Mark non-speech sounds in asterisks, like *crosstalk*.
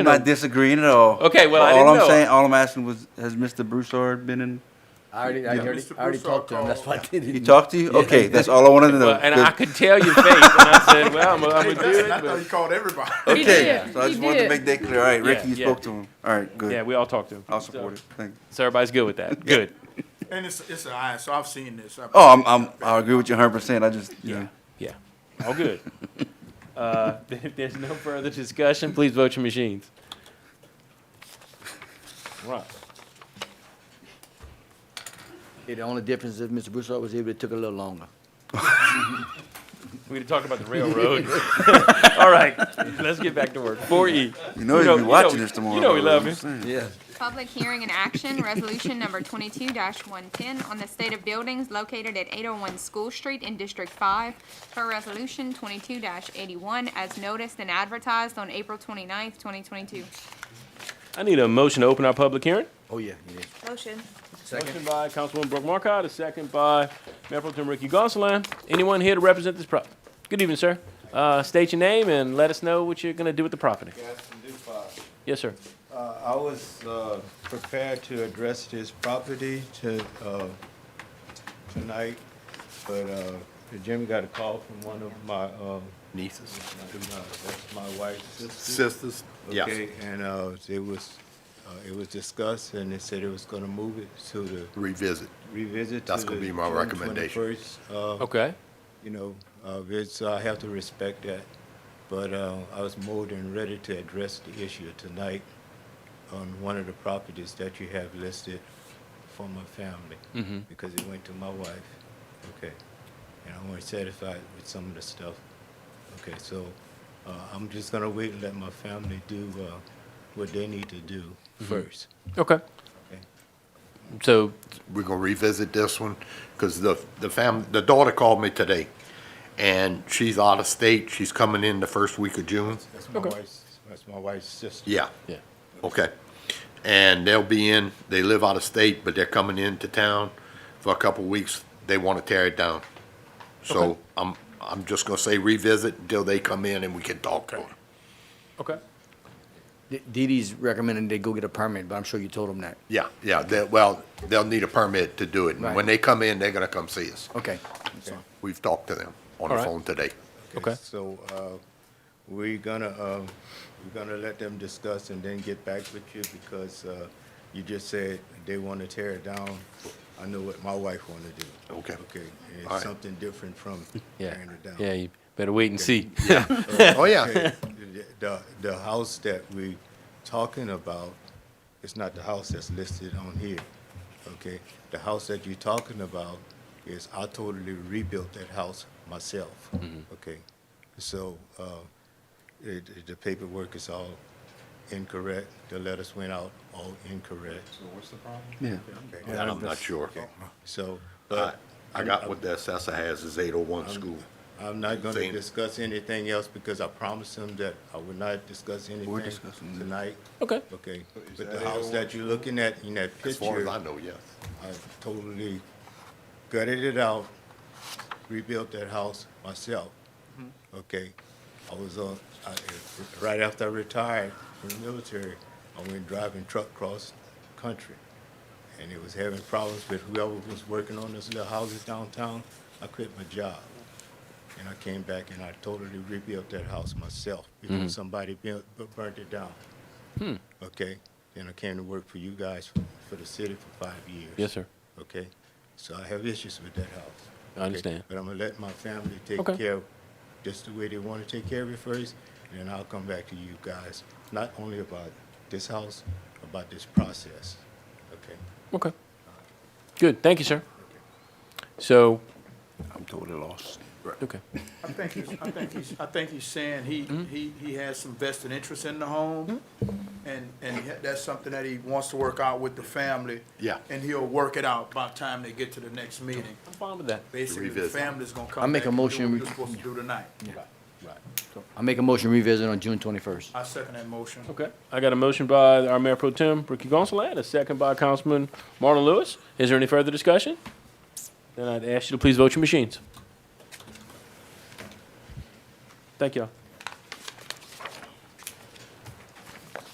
I'm not disagreeing at all. Okay, well, I all didn't I'm know. saying, all I'm asking was, has Mr. Broussard been in? I already, I Yeah. already, Mr. I already Broussard talked to him, that's why I didn't. He talked to you? Okay, that's all I wanted to know. Mm. Well, and Good. I could tell your face, and I said, "Well, I'm, *laughs* I'm gonna do Hey, Dustin, I it." thought you But called everybody. He Okay, did. so I He just wanted to did. make that clear. All right, Ricky, you yeah. spoke to him. All right, yeah, good. we all talked to him, I'll support it. Thank you. so everybody's good with that. Good. And it's, it's an eye, so I've seen this. I've- Oh, I'm, I'm, I agree with you hundred percent. I just, you know. Yeah. All good. *laughs* uh, if there's no further discussion, please vote your machines. Right. Yeah, The only difference is Mr. Broussard was able, it took a little longer. We're going to talk about the railroad. *laughs* All right. Let's get back to work. 4E. You know he's know- been you watching know- this tomorrow. you know we though, love I'm saying. him. Yeah. Public hearing and action, resolution number twenty-two one ten on the state of buildings located at eight oh one School Street in District Five per resolution twenty-two eighty-one as noticed and advertised on April twenty-ninth, twenty twenty-two. I need a motion to open our public hearing. Oh, yeah, it is. Motion. Motion by Councilwoman Brooke Marcotte, a second by Mayor Pro Tem Ricky Gonsalas. Anyone here to represent this property? Good evening, sir. Uh, state your name and let us know what you're going to do with the property. Yes, sir. Uh, I was uh, prepared to address this property to, uh, tonight, but uh, Jimmy got a call from one of my, uh, Nieces. that's my wife's sister. Sisters, Okay, and uh, it was, uh, it was discussed, and they said it was gonna move it to the, revisit. revisit to That's gonna the be my June recommendation. 21st, uh, Okay. you know, uh, it's, I have to respect that. But uh, I was more than ready to address the issue tonight on one of the properties that you have listed for my family. Because it went to my wife, okay? And I'm more satisfied with some of the stuff. Okay, so uh, I'm just gonna wait and let my family do uh, what they need to do first. Okay. Okay. So, We're gonna revisit this one, because the, the fam, the daughter called me today, and she's out of state, she's coming in the first week of June. That's my wife's, that's my wife's sister. Yeah, yeah. okay. And they'll be in, they live out of state, but they're coming into town for a couple weeks, they wanna tear it down. So, I'm, I'm just gonna say revisit until they come in and we can talk. Okay. D- Dee Dee's recommending they go get a permit, but I'm sure you told him that. Yeah, yeah, they, well, they'll need a permit to do it, and Right. when they come in, they're gonna come see us. Okay. We've talked to them on the Alright. phone today. Okay. So, uh, we're gonna, uh, we're gonna let them discuss and then get back with you because, uh, you just said they wanna tear it down. I know what my wife wanna do. Okay. Okay, and All it's right. something different from Yeah. tearing it down. Yeah, you better wait and see. Oh, *laughs* yeah. Okay, the- The, the house that we talking about, it's not the house that's listed on here, okay? The house that you're talking about is, I totally rebuilt that house myself, Mm-hmm. okay? So, uh, it, it- the paperwork is all incorrect, the letters went out all incorrect. So what's the problem? Yeah. I'm not sure. So, I but I got what the assessor has is eight oh one school. I'm not gonna Same. discuss anything else because I promised him that I would not discuss anything discussing tonight. Okay. Okay, but the house that you're looking at in that As far as picture, I I know, yes. totally gutted it out, rebuilt that house myself. Mm-hmm. Okay, I was, uh, I, right after I retired from the military, I went driving truck across country. And it was having problems with whoever was working on those little houses downtown. I quit my job. And I came back and I totally rebuilt that house myself Mm-hmm. because somebody bu- bu- burnt it down. Hmm. Okay, then I came to work for you guys, for- for the city for five years. Yes, sir. Okay, so I have issues with that house. I understand. Okay? But I'm gonna let my family take Okay. care of, just the way they wanna take care of it first, and then I'll come back to you guys, not only about this house, about this process, okay? Okay. Good. Thank you, sir. So, I'm totally lost. okay. I think, he's- I think he's, I think he's saying he, he, he has some vested interest in the home, and, and he- that's something that he wants to work out with the family. Yeah. And he'll work it out by the time they get to the next meeting. I'm fine with that. Basically, the Revisit. family's gonna come I make back a and do motion what we- they're supposed to do tonight. I'll make a motion revisit on June twenty-first. I second that motion. Okay. I got a motion by our Mayor Pro Tem Ricky Gonsalas, a second by Councilman Marlon Lewis. Is there any further discussion? Then I'd ask you to please vote your machines. Thank y'all.